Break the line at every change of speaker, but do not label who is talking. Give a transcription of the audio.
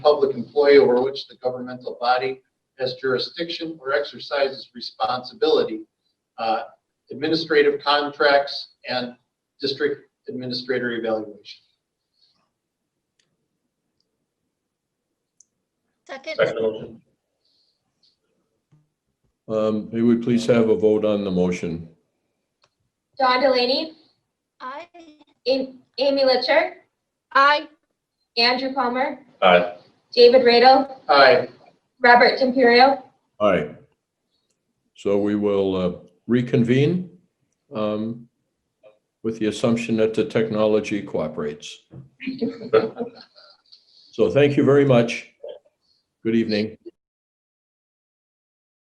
public employee over which the governmental body has jurisdiction or exercises responsibility, uh, administrative contracts, and district administrator evaluation.
Second,
Second motion.
Um, May we please have a vote on the motion?
John Delaney,
aye.
Am- Amy Litcher,
Aye.
Andrew Palmer,
Aye.
David Radel,
Aye,
Robert Timperio.
All right. So we will uh, reconvene um, with the assumption that the technology cooperates. So thank you very much. Good evening.